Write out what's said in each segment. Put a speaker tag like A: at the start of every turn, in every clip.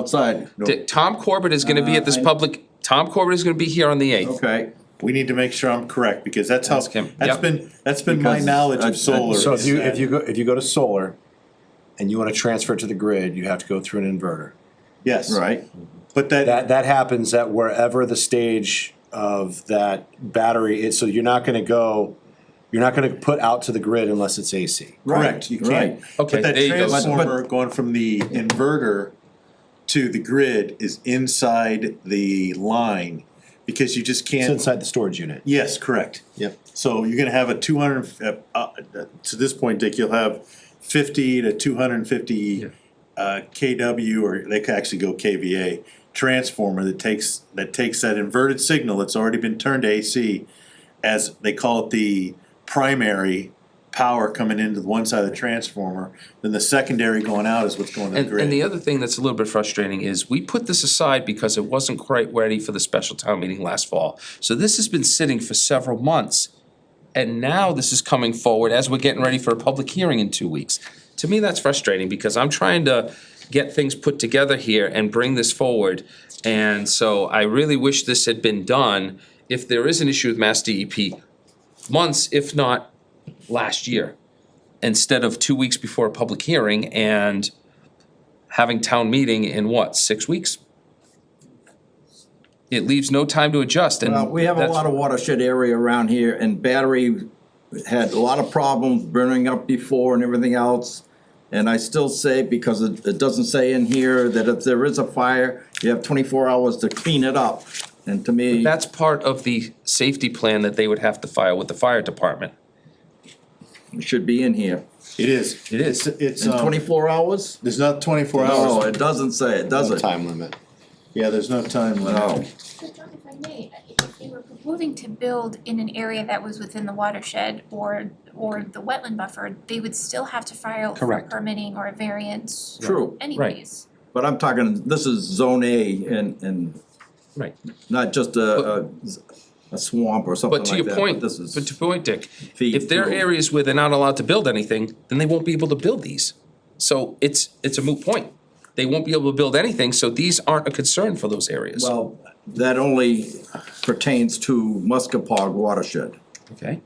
A: outside. No.
B: D- Tom Corbett is gonna be at this public, Tom Corbett is gonna be here on the eighth.
A: Okay,
C: We need to make sure I'm correct, because that's how,
B: Ask him,
C: that's
B: yep.
C: been, that's been my
A: Because
C: knowledge
A: I- I-
C: of solar.
D: So if
C: is
D: you,
C: that-
D: if you go, if you go to solar and you wanna transfer it to the grid, you have to go through an inverter.
C: Yes.
A: right.
C: But that,
D: That, that happens at wherever the stage of that battery is, so you're not gonna go, you're not gonna put out to the grid unless it's AC.
C: correct, you
A: Right.
C: can't.
B: Okay,
C: But that
B: there you go. But-
A: but-
C: transformer going from the inverter to the grid is inside the line, because you just
D: It's
C: can't,
D: inside the storage unit.
C: yes, correct.
D: Yep.
C: So you're gonna have a two hundred, uh, uh, to this point, Dick, you'll have fifty to two hundred and fifty uh, KW, or they could actually go KVA, transformer that takes, that takes that inverted signal that's already been turned to AC, as they call it the primary power coming into the one side of the transformer, then the secondary going out is what's going to the
B: And, and the
C: grid.
B: other thing that's a little bit frustrating is we put this aside because it wasn't quite ready for the special town meeting last fall. So this has been sitting for several months. And now this is coming forward as we're getting ready for a public hearing in two weeks. To me, that's frustrating because I'm trying to get things put together here and bring this forward. And so I really wish this had been done, if there is an issue with Mass DEP, months, if not last year, instead of two weeks before a public hearing and having town meeting in what, six weeks? It leaves no time to adjust and.
A: Well, we have a
B: that's-
A: lot of watershed area around here and battery had a lot of problems burning up before and everything else. And I still say, because it, it doesn't say in here, that if there is a fire, you have twenty-four hours to clean it up. And to me,
B: That's part of the safety plan that they would have to file with the fire department.
A: it should be in here.
C: It is,
B: It is.
C: it's,
A: And
C: um,
A: twenty-four hours?
C: there's not twenty-four
A: No,
C: hours,
A: it doesn't say, it does
D: No
A: it?
D: Time limit.
C: yeah, there's no time
A: No.
C: limit.
E: But John, if I may, if they were proposing to build in an area that was within the watershed or or the wetland buffer, they would still have to file for
B: Correct.
E: permitting or a variance
A: True,
E: anyways.
A: but I'm talking, this is zone A and, and
B: Right.
A: not just a, a a swamp or something
B: But
A: like
B: to
A: that.
B: your point,
A: this
B: but to
A: is
B: your point, Dick,
A: feed
B: if there are
A: through.
B: areas where they're not allowed to build anything, then they won't be able to build these. So it's, it's a moot point. They won't be able to build anything, so these aren't a concern for those areas.
A: Well, that only pertains to Muskapog watershed,
B: Okay?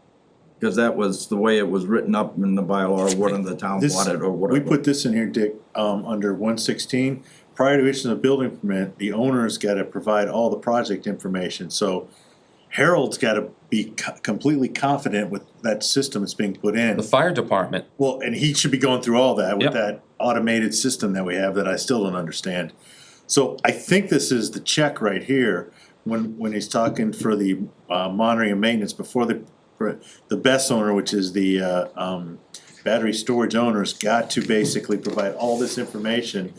A: because that was the way it was written up in the bylaw, or what in the town
C: This-
A: wanted, or
C: We
A: whatever.
C: put this in here, Dick, um, under one sixteen, prior to issuing a building permit, the owner's gotta provide all the project information, so. Harold's gotta be co- completely confident with that system that's being put in.
B: The fire department,
C: Well, and he should be going through all that
B: Yep.
C: with that automated system that we have that I still don't understand. So I think this is the check right here, when, when he's talking for the uh, monitoring and maintenance before the, for the best owner, which is the, uh, um, battery storage owners, got to basically provide all this information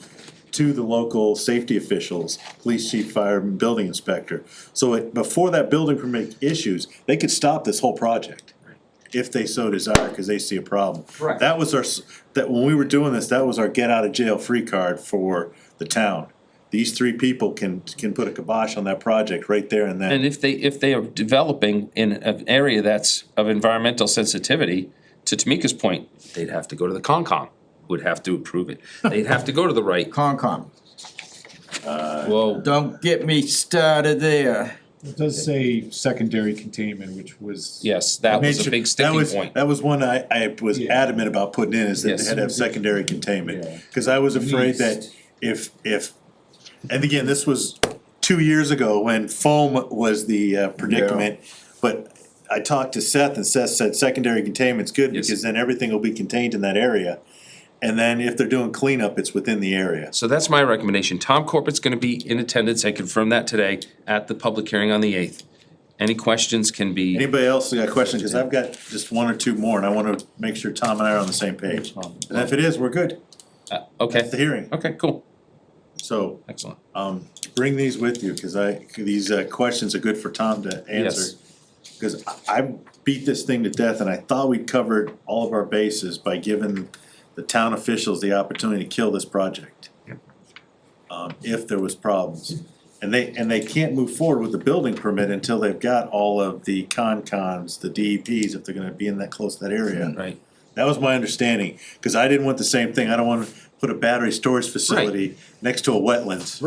C: to the local safety officials, police chief, fire, and building inspector. So it, before that building permit issues, they could stop this whole project if they so desire, cause they see a problem.
B: Correct.
C: That was our, s- that, when we were doing this, that was our get out of jail free card for the town. These three people can, can put a kibosh on that project right there and
B: and
C: then.
B: if they, if they are developing in an area that's of environmental sensitivity, to Tamika's point, they'd have to go to the Concom, who would have to approve it. They'd have to go to the right,
A: Concom,
B: whoa,
A: don't get me started there.
F: It does say secondary containment, which was.
B: yes, that
C: Made
B: was a
C: sure-
B: big
C: that
B: sticking
C: was-
B: point.
C: That was one I, I was
F: Yeah.
C: adamant about putting in, is that they
B: Yes.
C: had to have secondary containment.
F: Yeah.
C: Cause I was afraid that
F: Least.
C: if, if, and again, this was two years ago when foam was the uh, predicament. But I talked to Seth and Seth said secondary containment's good
B: Yes.
C: because then everything will be contained in that area. And then if they're doing cleanup, it's within the area.
B: So that's my recommendation. Tom Corbett's gonna be in attendance, I confirmed that today, at the public hearing on the eighth. Any questions can be,
C: Anybody else got a question? Cause I've got just one or two more and I wanna make sure Tom and I are on the same page. And if it is, we're good. It's the
B: okay,
C: hearing.
B: okay, cool,
C: So
B: excellent.
C: um, bring these with you, cause I, these uh, questions are good for Tom to answer. Cause I- I beat this thing to death and I thought we covered all of our bases by giving the town officials the opportunity to kill this project. Um, if there was problems. And they, and they can't move forward with the building permit until they've got all of the con-cons, the E DEPs, if they're gonna be in that, close to that area.
B: Right,
C: That was my understanding, cause I didn't want the same thing, I don't want put a battery storage facility next to a wetlands.